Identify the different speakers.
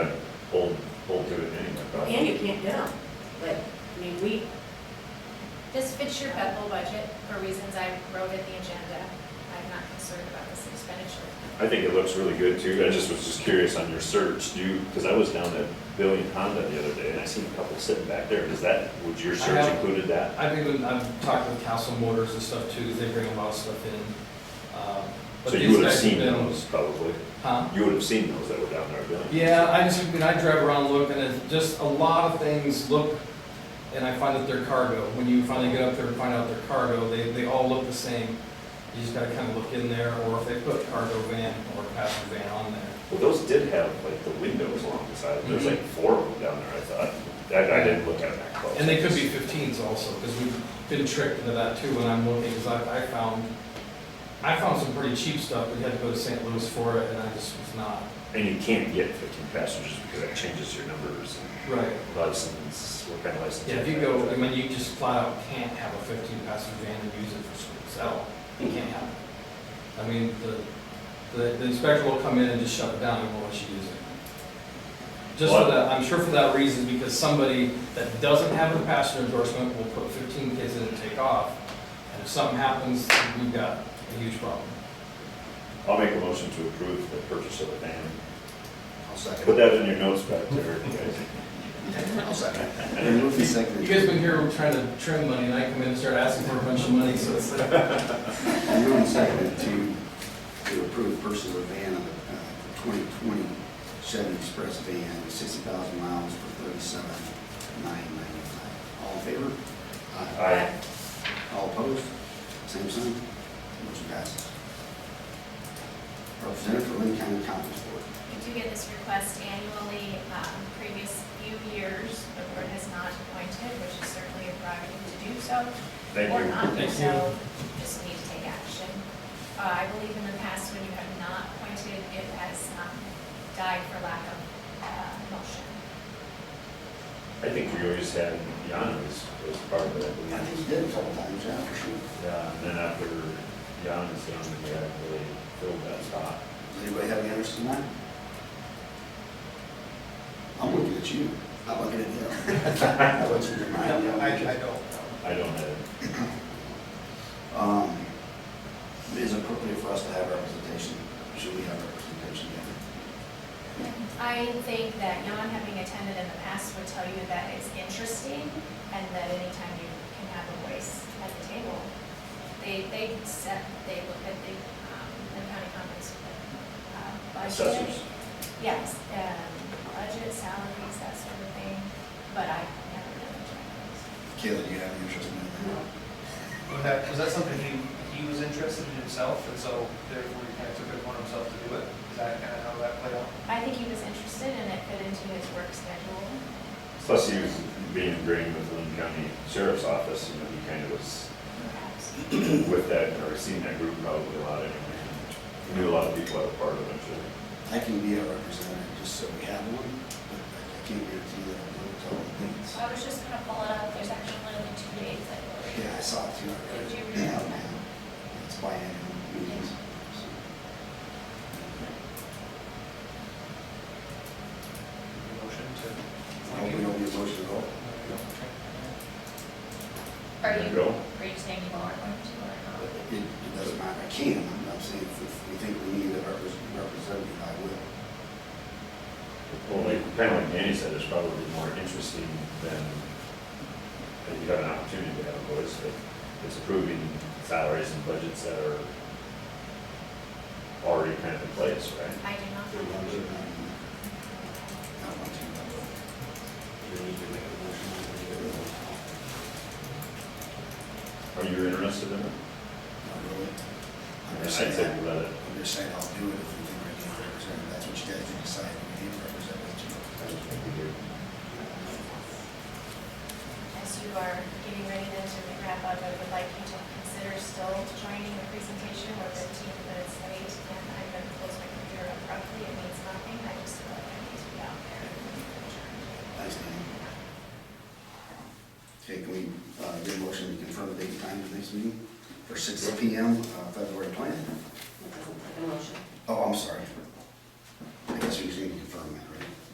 Speaker 1: and you can't get them, but, I mean, we,
Speaker 2: This fits your Bethel budget for reasons I wrote in the agenda. I'm not concerned about this expenditure.
Speaker 3: I think it looks really good too. I just was just curious on your search, do you, because I was down at Billy and Honda the other day and I seen a couple sitting back there. Does that, would your
Speaker 4: I
Speaker 3: search
Speaker 4: have-
Speaker 3: included that?
Speaker 4: I've even, I've talked with Castle Motors and stuff too, 'cause they bring a lot of stuff in. Um, but
Speaker 3: So you
Speaker 4: these
Speaker 3: would have
Speaker 4: guys
Speaker 3: seen
Speaker 4: been-
Speaker 3: those probably.
Speaker 4: Huh?
Speaker 3: You would have seen those that were down there, Billy.
Speaker 4: Yeah, I just, when I drive around looking at, just a lot of things look, and I find that they're cargo. When you finally get up there and find out they're cargo, they, they all look the same. You just gotta kinda look in there, or if they put cargo van or passenger van on there.
Speaker 3: Well, those did have like the windows along the side. There's
Speaker 4: Mhm.
Speaker 3: like four of them down there, I thought. I, I didn't look at them that close.
Speaker 4: And they could be fifteens also, because we've been tricked into that too when I'm looking, because I, I found, I found some pretty cheap stuff, we had to go to St. Louis for it, and I just was not.
Speaker 3: And you can't get fifteen passengers because that changes your numbers
Speaker 4: Right.
Speaker 3: and license, what kind of license.
Speaker 4: Yeah, if you go, I mean, you just flat out can't have a fifteen passenger van and use it for school sale, you can't have it. I mean, the, the, the inspector will come in and just shut it down and won't let you use it. Just for
Speaker 3: Well, I-
Speaker 4: that, I'm sure for that reason, because somebody that doesn't have a passenger endorsement will put fifteen kids in and take off, and if something happens, we've got a huge problem.
Speaker 3: I'll make a motion to approve the purchase of a van.
Speaker 5: I'll second.
Speaker 3: Put that in your notes back there, guys.
Speaker 5: I'll second. And move the second.
Speaker 4: You guys been here trying to trim money, and I come in and start asking for a bunch of money, so it's like,
Speaker 5: And move the second to, to approve purchase of a van, uh, twenty twenty Chevy Express van, sixty thousand miles for thirty-seven nine ninety-five. All in favor?
Speaker 3: Aye.
Speaker 5: All opposed? Same sign? Motion passes. Representative for Lynn County Conference Board.
Speaker 2: We do get this request annually. Um, Previous few years, the board has not appointed, which is certainly a prerogative to do so.
Speaker 3: Thank
Speaker 2: Or
Speaker 3: you.
Speaker 2: not, do
Speaker 4: Thank
Speaker 2: so just need to take action. Uh, I believe in the past, when you have not appointed, it has um, died for lack of uh, motion.
Speaker 3: I think we always had Yana as, as part of that.
Speaker 5: I think you did a couple times, yeah, for sure.
Speaker 3: Yeah, and then after Yana's done, we actually filled that spot.
Speaker 5: Does anybody have any interest in that? I'm looking at you. I'm looking at you. What's in your mind?
Speaker 6: No, I, I don't.
Speaker 3: I don't have,
Speaker 5: Um, is it appropriate for us to have representation? Should we have representation here?
Speaker 2: I think that Jan, having attended in the past, would tell you that it's interesting and that anytime you can have a voice at the table. They, they set, they look at the, um, the county conference, uh, budget.
Speaker 3: Assessors.
Speaker 2: Yes, um, budget, salaries, that sort of thing, but I never done a job.
Speaker 5: Kayla, do you have any interest in that?
Speaker 6: Was that, was that something he, he was interested in himself, and so therefore he kind of took it upon himself to do it? Is that kind of how that played out?
Speaker 2: I think he was interested and it fit into his work schedule.
Speaker 3: plus he was being ingrained with Lynn County Sheriff's Office, you know, he kind of was
Speaker 2: Perhaps.
Speaker 3: with that, or seen that group probably a lot anyway. He Knew a lot of people that were part of it, I'm
Speaker 5: I can be a representative just so we have one, but I can't guarantee that I'll do it all the things.
Speaker 7: I was just gonna pull it up, there's actually only two dates, I believe.
Speaker 5: Yeah, I saw it too. I read it.
Speaker 7: Did you read it?
Speaker 5: Yeah, man. It's biannual meetings. so.
Speaker 6: Motion
Speaker 5: I hope we
Speaker 6: to.
Speaker 5: don't need a motion at all.
Speaker 7: Are
Speaker 3: There you
Speaker 7: you,
Speaker 3: go.
Speaker 7: are you saying you are going to or
Speaker 5: But
Speaker 7: not?
Speaker 5: It it doesn't matter, I can, I'm not saying if if we think we need a repres- representative, I will.
Speaker 3: sure. Well, like, kind of like Danny said, it's probably more interesting than, that you have an opportunity to have a voice, but it's approving salaries and budgets that are already kind of in place, right?
Speaker 2: I do not. know.
Speaker 5: Not much of that. Not much of that. Do we need to make a motion on the other one?
Speaker 3: Are you interested in it?
Speaker 5: Not really. I'm
Speaker 3: I'd
Speaker 5: just
Speaker 3: say
Speaker 5: saying,
Speaker 3: we
Speaker 5: I'm
Speaker 3: let it.
Speaker 5: just saying I'll do it if we think we need a representative, that's what you guys have decided, we need a representative.
Speaker 2: As you are getting ready then to wrap up, I would like you to consider still joining the presentation. We're 15 minutes late, and I'm going to close my computer abruptly. It means nothing. I just feel like I need to be out there.
Speaker 5: Thanks, Dan. Okay, can we, uh, get a motion to confirm the date and time of the next meeting for six P M, uh, February twentieth?
Speaker 1: it doesn't take a motion.
Speaker 5: Oh,